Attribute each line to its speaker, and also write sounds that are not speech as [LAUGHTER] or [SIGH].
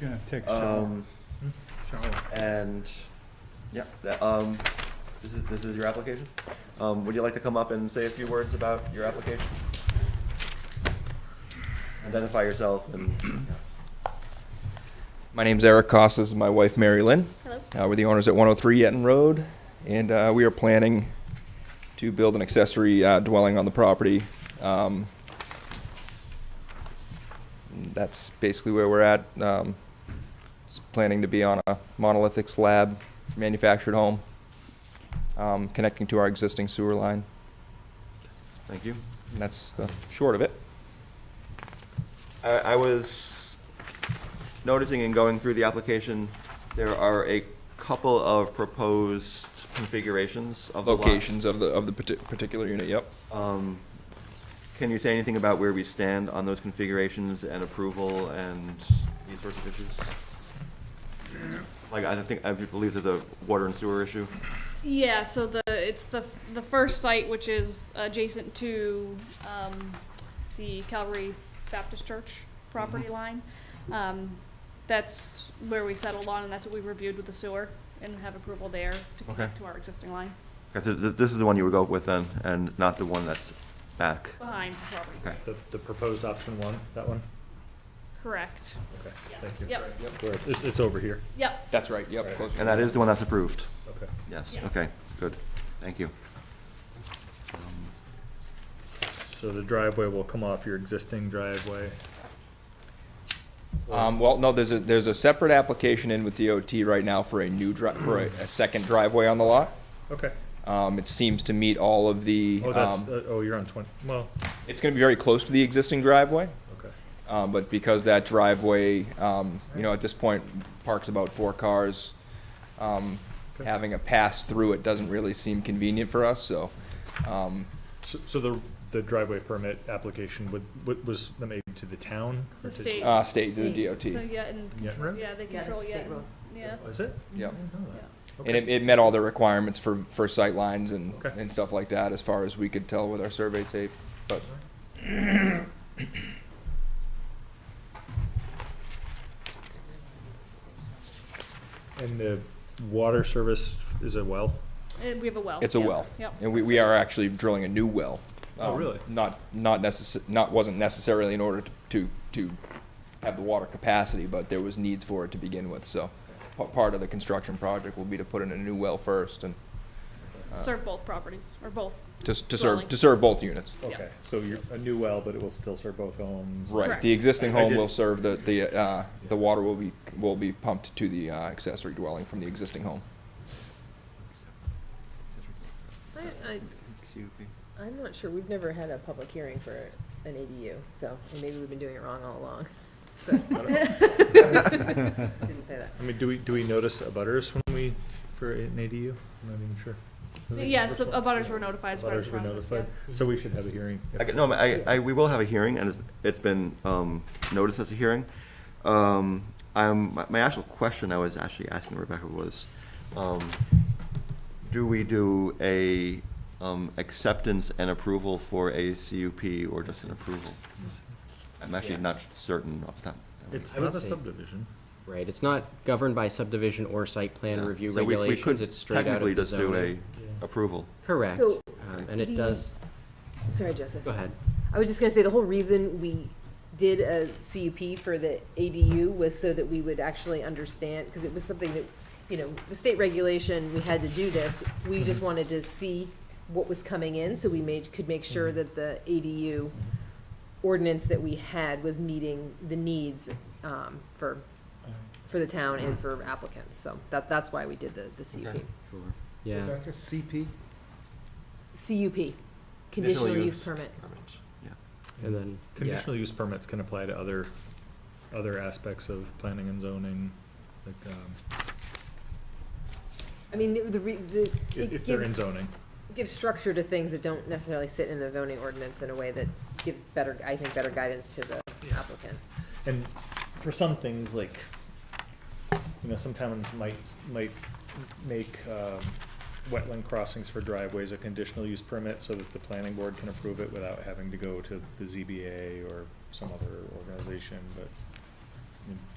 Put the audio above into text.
Speaker 1: You're gonna take a shower.
Speaker 2: Um,
Speaker 1: Shower.
Speaker 2: and, yeah, that, um, this is, this is your application? Um, would you like to come up and say a few words about your application? Identify yourself and, [CLEARS THROAT]
Speaker 3: My name's Eric Costas, and my wife Mary Lynn.
Speaker 4: Hello.
Speaker 3: Uh, we're the owners at 103 Yeton Road, and uh, we are planning to build an accessory uh, dwelling on the property. Um, that's basically where we're at. Um, it's planning to be on a monolithic slab manufactured home, um, connecting to our existing sewer line.
Speaker 2: thank you.
Speaker 3: And that's the short of it.
Speaker 2: I, I was noticing in going through the application, there are a couple of proposed configurations of the lot.
Speaker 3: Locations of the of the parti- particular unit. Yep.
Speaker 2: Um, Can you say anything about where we stand on those configurations and approval and these sorts of issues? Like, I don't think, I believe there's a water and sewer issue.
Speaker 4: Yeah, so the, it's the, the first site, which is adjacent to, um, the Calvary Baptist Church property line. Um, that's where we settled on, and that's what we reviewed with the sewer, and have approval there to connect
Speaker 2: Okay.
Speaker 4: to our existing line,
Speaker 2: Okay, so th- This is the one you would go with then, and not the one that's back.
Speaker 4: behind the property.
Speaker 2: Okay.
Speaker 5: The, the proposed option one, that one?
Speaker 4: Correct,
Speaker 5: Okay,
Speaker 4: yes,
Speaker 5: thank you.
Speaker 4: yep,
Speaker 5: Where- It's, it's over here,
Speaker 4: yep,
Speaker 3: That's right. Yep.
Speaker 5: Right.
Speaker 3: close
Speaker 2: And that is the one that's approved?
Speaker 5: okay.
Speaker 2: Yes,
Speaker 4: Yes.
Speaker 2: okay, good, thank you.
Speaker 5: So the driveway will come off your existing driveway.
Speaker 3: Um, well, no, there's a, there's a separate application in with DOT right now for a new dri- for a, a second driveway on the lot.
Speaker 5: Okay,
Speaker 3: Um, it seems to meet all of the,
Speaker 5: oh, that's,
Speaker 3: um,
Speaker 5: uh, oh, you're on twenty, well,
Speaker 3: it's gonna be very close to the existing driveway.
Speaker 5: okay.
Speaker 3: Um, but because that driveway, um, you know, at this point parks about four cars, um,
Speaker 5: Okay.
Speaker 3: having a pass through it doesn't really seem convenient for us, so, um,
Speaker 5: So, so the, the driveway permit application would, would- was made to the town?
Speaker 4: it's
Speaker 5: or
Speaker 4: the
Speaker 5: to-
Speaker 4: state,
Speaker 3: uh, stay to the
Speaker 6: State.
Speaker 3: DOT.
Speaker 4: so yeah, and,
Speaker 5: Yeah, right?
Speaker 4: yeah, they
Speaker 6: Yeah, that's
Speaker 4: control, yeah,
Speaker 6: state road.
Speaker 4: yeah,
Speaker 5: Is it?
Speaker 3: Yep.
Speaker 5: I didn't know
Speaker 4: yeah.
Speaker 5: that.
Speaker 3: And it,
Speaker 5: Okay,
Speaker 3: it met all the requirements for, for sight lines and,
Speaker 5: Okay.
Speaker 3: and stuff like that, as far as we could tell with our survey tape, but
Speaker 5: and the water service is a well?
Speaker 4: And we have a well.
Speaker 3: It's a
Speaker 4: yep,
Speaker 3: well.
Speaker 4: Yep.
Speaker 3: And we, we are actually drilling a new well.
Speaker 5: Oh,
Speaker 3: Um,
Speaker 5: really?
Speaker 3: Not, not necess, not, wasn't necessarily in order to, to, to have the water capacity, but there was needs for it to begin with, so. pa- Part of the construction project will be to put in a new well first and
Speaker 4: Serve both properties, or both,
Speaker 3: to, s- to serve,
Speaker 4: Dwelling.
Speaker 3: to serve both units.
Speaker 4: Yeah.
Speaker 5: Okay, so you're, a new well, but it will still serve both homes?
Speaker 3: Right,
Speaker 4: Correct.
Speaker 3: the existing
Speaker 5: I- I
Speaker 3: home
Speaker 5: did-
Speaker 3: will serve the, the, uh, the water will be, will be pumped to the uh, accessory dwelling from the existing home.
Speaker 6: I, I, I'm not sure, we've never had a public hearing for an ADU, so, and maybe we've been doing it wrong all along. [LAUGHS] But- Didn't say that.
Speaker 5: I mean, do we, do we notice abutters when we, for an ADU? I'm not even sure.
Speaker 4: yeah, so abutters were notified as part of
Speaker 5: Abutters
Speaker 4: the
Speaker 5: were
Speaker 4: process, yeah.
Speaker 5: notified, so we should have a hearing.
Speaker 2: I g- No, I, I, we will have a hearing, and it's, it's been, um, noticed as a hearing. Um, I'm, my- my actual question I was actually asking Rebecca was, um, do we do a, um, acceptance and approval for a CUP or just an approval? I'm actually not certain off the top.
Speaker 5: It's
Speaker 7: I would
Speaker 5: not a
Speaker 7: say-
Speaker 5: subdivision.
Speaker 7: Right, it's not governed by subdivision or site plan review
Speaker 2: So we- we could
Speaker 7: regulations, it's straight out of the zoning.
Speaker 2: Technically, just do a approval.
Speaker 7: Correct,
Speaker 6: So,
Speaker 7: um, and it
Speaker 6: the-
Speaker 7: does,
Speaker 6: Sorry, Joseph.
Speaker 7: go ahead.
Speaker 6: I was just gonna say, the whole reason we did a CUP for the ADU was so that we would actually understand, because it was something that, you know, the state regulation, we had to do this.
Speaker 5: Mm-hmm.
Speaker 6: We just wanted to see what was coming in, so we made, could make sure
Speaker 5: Mm-hmm.
Speaker 6: that the ADU ordinance that we had was meeting the needs, um, for, for the town and for applicants. So that, that's why we did the, the CUP.
Speaker 2: Okay.
Speaker 7: Sure. Yeah,
Speaker 8: Rebecca, CP?
Speaker 6: CUP, conditional use permit.
Speaker 2: Yeah.
Speaker 7: and then, yeah,
Speaker 5: Conditional use permits can apply to other, other aspects of planning and zoning, like, um,
Speaker 6: I mean, the- the, re- the,
Speaker 5: i-
Speaker 6: it
Speaker 5: if they're in
Speaker 6: gives
Speaker 5: zoning.
Speaker 6: give structure to things that don't necessarily sit in the zoning ordinance in a way that gives better, I think, better guidance to the applicant.
Speaker 5: And for some things, like, you know, sometimes might, might make, um, wetland crossings for driveways a conditional use permit so that the planning board can approve it without having to go to the ZBA or some other organization, but I mean,